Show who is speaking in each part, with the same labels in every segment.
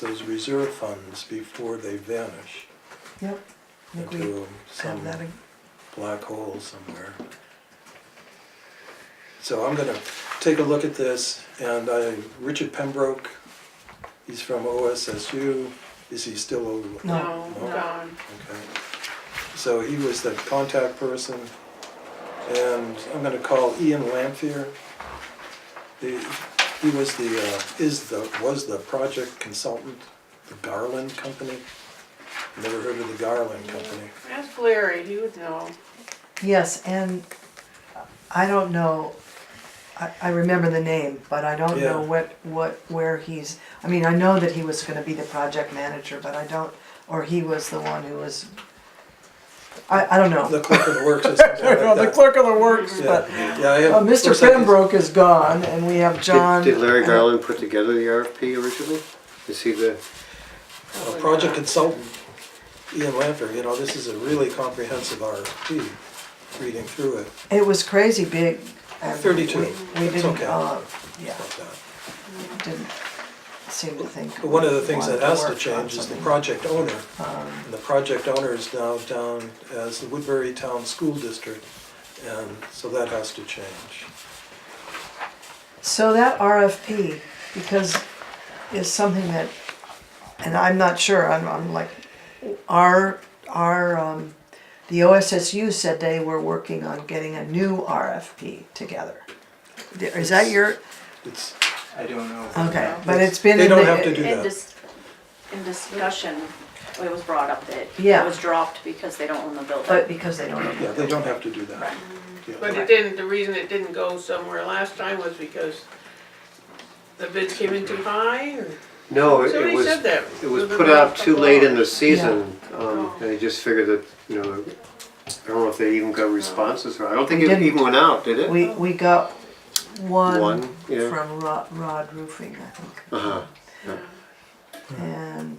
Speaker 1: those reserve funds before they vanish
Speaker 2: Yep, I think we
Speaker 1: into
Speaker 2: have
Speaker 1: some
Speaker 2: that, ag-
Speaker 1: black hole somewhere. So I'm gonna take a look at this, and I, Richard Pembroke, he's from OSSU, is he still over?
Speaker 2: No.
Speaker 1: No.
Speaker 3: gone.
Speaker 1: Okay. So he was the contact person, and I'm gonna call Ian Lamphere. The, he was the, uh, is the, was the project consultant, the Garland Company. Never heard of the Garland Company.
Speaker 3: Ask Larry, he would know.
Speaker 2: yes, and I don't know, I, I remember the name, but I don't know
Speaker 1: Yeah.
Speaker 2: what, what, where he's, I mean, I know that he was gonna be the project manager, but I don't, or he was the one who was, I, I don't know.
Speaker 1: The clerk of the works or something
Speaker 2: I
Speaker 1: like
Speaker 2: don't know, the
Speaker 1: that.
Speaker 2: clerk of the works, but,
Speaker 1: Yeah, yeah, I had-
Speaker 2: uh, Mr.
Speaker 1: looks like he's-
Speaker 2: Pembroke is gone, and we have John.
Speaker 4: Did did Larry Garland put together the RFP originally? Is he the,
Speaker 1: a project consultant, Ian Lamphere, you know, this is a really comprehensive RFP, reading through it.
Speaker 2: It was crazy big. and we-
Speaker 1: 32.
Speaker 2: We
Speaker 1: It's
Speaker 2: didn't,
Speaker 1: okay.
Speaker 2: uh, yeah,
Speaker 1: about that.
Speaker 2: didn't seem to think.
Speaker 1: But one of the
Speaker 2: we
Speaker 1: things that
Speaker 2: wanted
Speaker 1: has to
Speaker 2: work on
Speaker 1: change is the
Speaker 2: something. Um,
Speaker 1: project owner. And the project owner is now down as the Woodbury Town School District, and so that has to change.
Speaker 2: So that RFP, because is something that, and I'm not sure, I'm, I'm like, our, our, um, the OSSU said they were working on getting a new RFP together. Is that your,
Speaker 1: It's,
Speaker 5: I don't know.
Speaker 2: okay, but it's been.
Speaker 1: They
Speaker 2: in
Speaker 1: don't
Speaker 2: the-
Speaker 1: have to do
Speaker 6: In
Speaker 1: that.
Speaker 6: dis, in discussion, it was brought up that
Speaker 2: Yeah.
Speaker 6: it was dropped because they don't own the building.
Speaker 2: But because they don't.
Speaker 1: yeah, they don't have to do that. Yeah.
Speaker 3: But it didn't, the reason it didn't go somewhere last time was because the bids came in too high. or-
Speaker 4: no, it- it
Speaker 3: Somebody
Speaker 4: was,
Speaker 3: said that.
Speaker 4: it was put out too late in the season. Um,
Speaker 3: Oh.
Speaker 4: They just figured that, you know, I don't know if they even got responses or, I don't think
Speaker 2: We
Speaker 4: it
Speaker 2: didn't.
Speaker 4: even went out, did it?
Speaker 2: We, we got one
Speaker 4: One, yeah.
Speaker 2: from Rod, Rod Roofing, I think,
Speaker 4: Uh-huh.
Speaker 1: Hmm.
Speaker 2: and,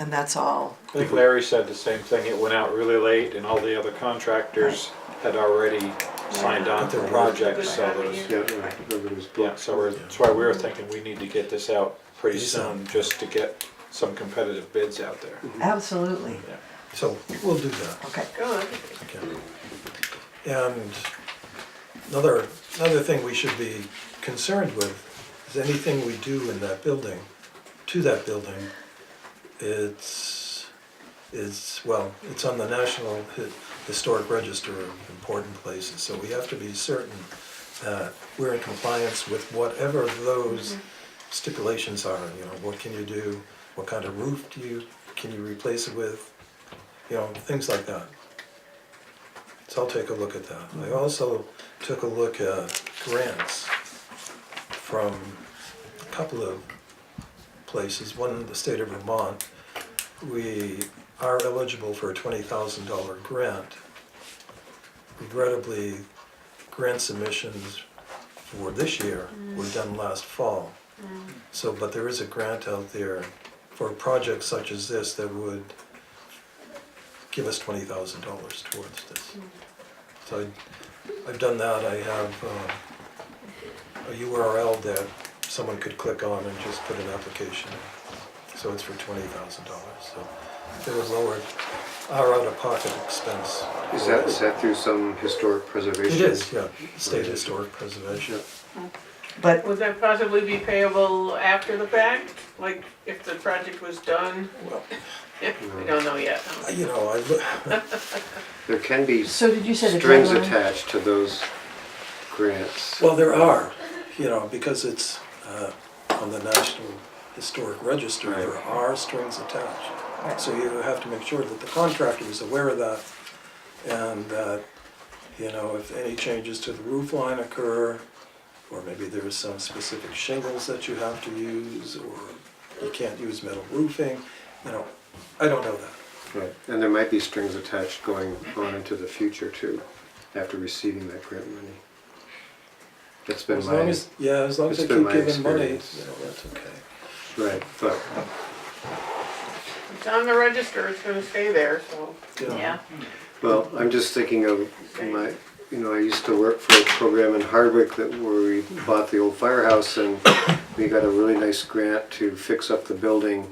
Speaker 2: and that's all.
Speaker 5: I think Larry said the same thing, it went out really late and all the other contractors had already signed on to
Speaker 1: Their
Speaker 5: projects, so
Speaker 3: project.
Speaker 5: there's,
Speaker 4: Yeah, right. Everybody was
Speaker 5: yeah,
Speaker 4: booked.
Speaker 5: so we're, that's why we were thinking we need to get this out pretty
Speaker 1: Pretty
Speaker 5: soon, just to get some competitive bids out there.
Speaker 2: Absolutely,
Speaker 1: So we'll do that.
Speaker 2: okay.
Speaker 3: Good.
Speaker 1: Okay. And another, another thing we should be concerned with is anything we do in that building, to that building, it's, it's, well, it's on the National Hi- Historic Register of Important Places, so we have to be certain that we're in compliance with whatever those stipulations are, you know, what can you do, what kind of roof do you, can you replace it with, you know, things like that. So I'll take a look at that. I also took a look at grants from a couple of places, one in the state of Vermont. We are eligible for a twenty thousand dollar grant. Regrettably, grant submissions for this year were done last fall. So, but there is a grant out there for projects such as this that would give us twenty thousand dollars towards this. So I- I've done that, I have uh, a URL that someone could click on and just put an application in. So it's for twenty thousand dollars, so it would lower our out-of-pocket expense.
Speaker 4: Is that, is that through some historic
Speaker 1: It
Speaker 4: preservation?
Speaker 1: is, yeah, state historic preservation.
Speaker 2: But
Speaker 3: Would that possibly be payable after the fact? Like if the project was done?
Speaker 1: Well,
Speaker 3: We don't know yet.
Speaker 1: you know, I, look-
Speaker 4: There can be
Speaker 2: So did you say the
Speaker 4: strings
Speaker 2: deadline?
Speaker 4: attached to those grants.
Speaker 1: Well, there are, you know, because it's uh, on the National Historic Register, there
Speaker 4: Right.
Speaker 1: are strings attached. So you have to make sure that the contractor is aware of that and that, you know, if any changes to the roof line occur, or maybe there is some specific shingles that you have to use, or you can't use metal roofing, you know, I don't know that.
Speaker 4: Right, and there might be strings attached going on into the future too, after receiving that grant money. That's been
Speaker 1: As long
Speaker 4: my,
Speaker 1: as, yeah, as long as they
Speaker 4: it's been
Speaker 1: keep
Speaker 4: my
Speaker 1: giving money, you know,
Speaker 4: experience.
Speaker 1: that's okay.
Speaker 4: right, but
Speaker 3: It's on the register, it's gonna stay there, so.
Speaker 1: you know.
Speaker 6: Yeah,
Speaker 4: Well, I'm just thinking of my, you know, I used to work for a program in Hardwick that where we bought the old firehouse and We got a really nice grant to fix up the building